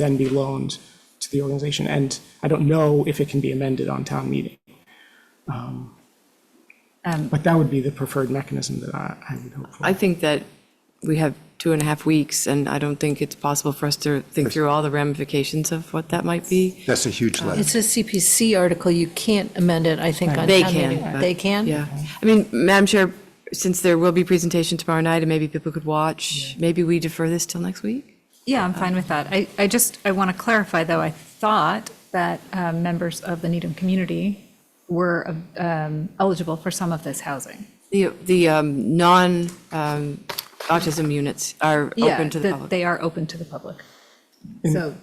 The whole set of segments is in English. then be loaned to the organization. And I don't know if it can be amended on town meeting. Um, But that would be the preferred mechanism that I, I would hope for. I think that we have two and a half weeks, and I don't think it's possible for us to think through all the ramifications of what that might be. That's a huge letter. It's a CPC article, you can't amend it, I think, on They town meeting. can. but- They can? Yeah. I mean, Madam Chair, since there will be presentation tomorrow night, and maybe people could watch, maybe we defer this till next week? Yeah, I'm fine with that. I, I just, I want to clarify, though, I thought that um, members of the Needham community were um, eligible for some of this housing. The, the um, non um, autism units are Yeah, open to the that public. They are open to the public. So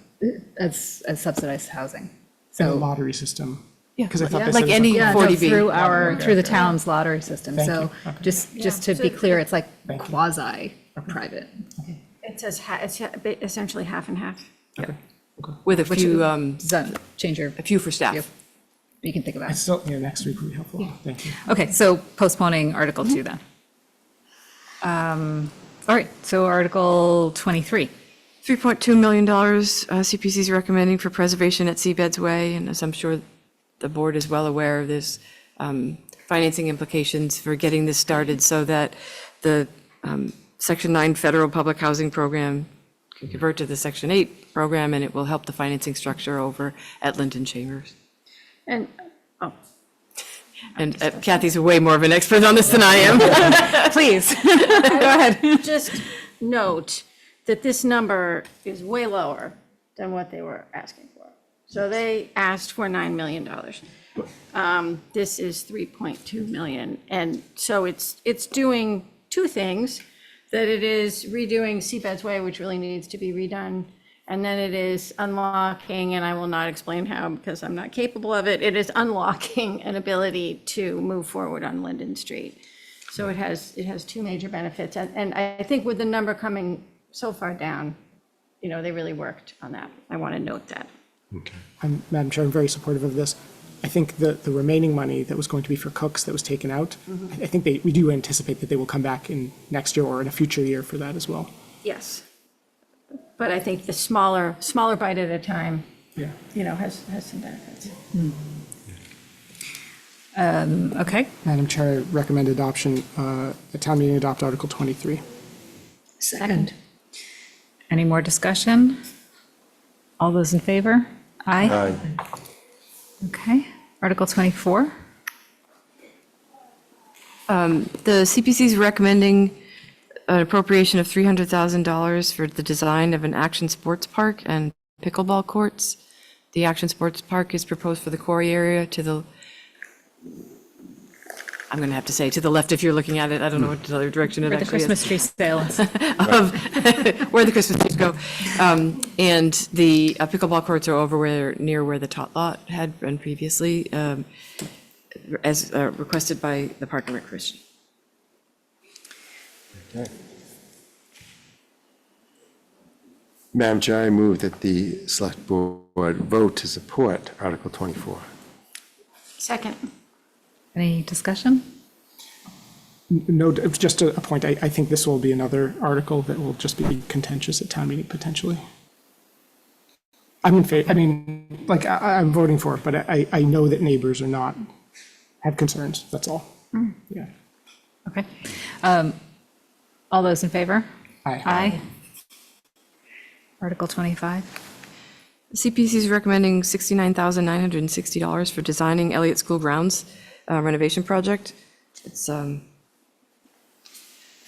as, as subsidized housing. And the So, lottery system. Yeah. Because I thought Yeah. they said Like it was a any yeah, no, 40B. through our, through the town's lottery system. Thank So you. Okay. just, just to be clear, it's like quasi-private. It says, ha- it's ha- ba- essentially half and half. With a Which- few, um, Does that change your, a few for staff. you can think about I it. still, yeah, next week would be helpful. Thank you. Okay, so postponing Article 2 then. Um, All right, so Article 23. $3.2 million uh, CPC is recommending for preservation at Seabed's Way, and as I'm sure the board is well aware, there's um, financing implications for getting this started so that the um, Section 9 federal public housing program can convert to the Section 8 program, and it will help the financing structure over at Linden Chambers. And, oh, And uh, Kathy's way more of an expert on this than I am. Please. just note that this number is way lower than what they were asking for. So they asked for $9 million. Um, This is 3.2 million. And so it's, it's doing two things, that it is redoing Seabed's Way, which really needs to be redone, and then it is unlocking, and I will not explain how because I'm not capable of it, it is unlocking an ability to move forward on Linden Street. So it has, it has two major benefits, and, and I think with the number coming so far down, you know, they really worked on that. I want to note that. I'm, Madam Chair, I'm very supportive of this. I think the, the remaining money that was going to be for cooks that was taken out, I I think they, we do anticipate that they will come back in next year or in a future year for that as well. Yes. But I think the smaller, smaller bite at a time, Yeah. you know, has, has some benefits. um, Okay, Madam Chair, I recommend adoption, uh, the town meeting adopt Article 23. second. Any more discussion? All those in favor? Aye. Aye. Okay, Article 24. The CPC is recommending an appropriation of $300,000 for the design of an action sports park and pickleball courts. The action sports park is proposed for the quarry area to the, I'm going to have to say, to the left if you're looking at it, I don't know what other direction it For the actually is Christmas tree sale. of where the Christmas trees go. Um, And the uh, pickleball courts are over where, near where the tot lot had been previously, um, as uh, requested by the Park and Recreation. Madam Chair, I move that the select board vote to support Article 24. Second. Any discussion? No, d- just a a point, I, I think this will be another article that will just be contentious at town meeting potentially. I'm in favor, I mean, like, I- I, I'm voting for it, but I, I know that neighbors are not, have concerns, that's all. Yeah. Okay. Um, All those in favor? Aye. Aye. Article 25. CPC is recommending $69,960 for designing Elliott School grounds uh, renovation project. It's um,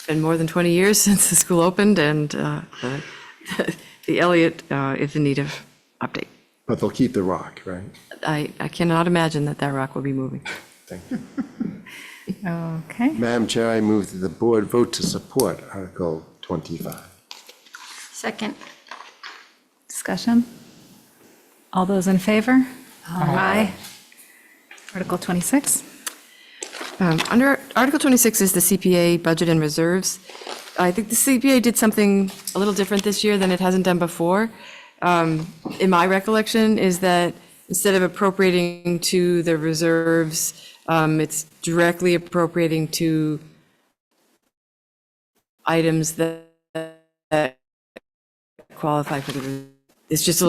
been more than 20 years since the school opened, and uh, the- the Elliott uh, is in need of update. But they'll keep the rock, right? I I cannot imagine that that rock will be moving. Thank you. Okay, Madam Chair, I move that the board vote to support Article 25. Second. discussion? All those in favor? Aye. Article 26. Um, Under Article 26 is the CPA budget and reserves. I think the CPA did something a little different this year than it hasn't done before. Um, In my recollection is that instead of appropriating to the reserves, um, it's directly appropriating to items that that qualify for the it's just a little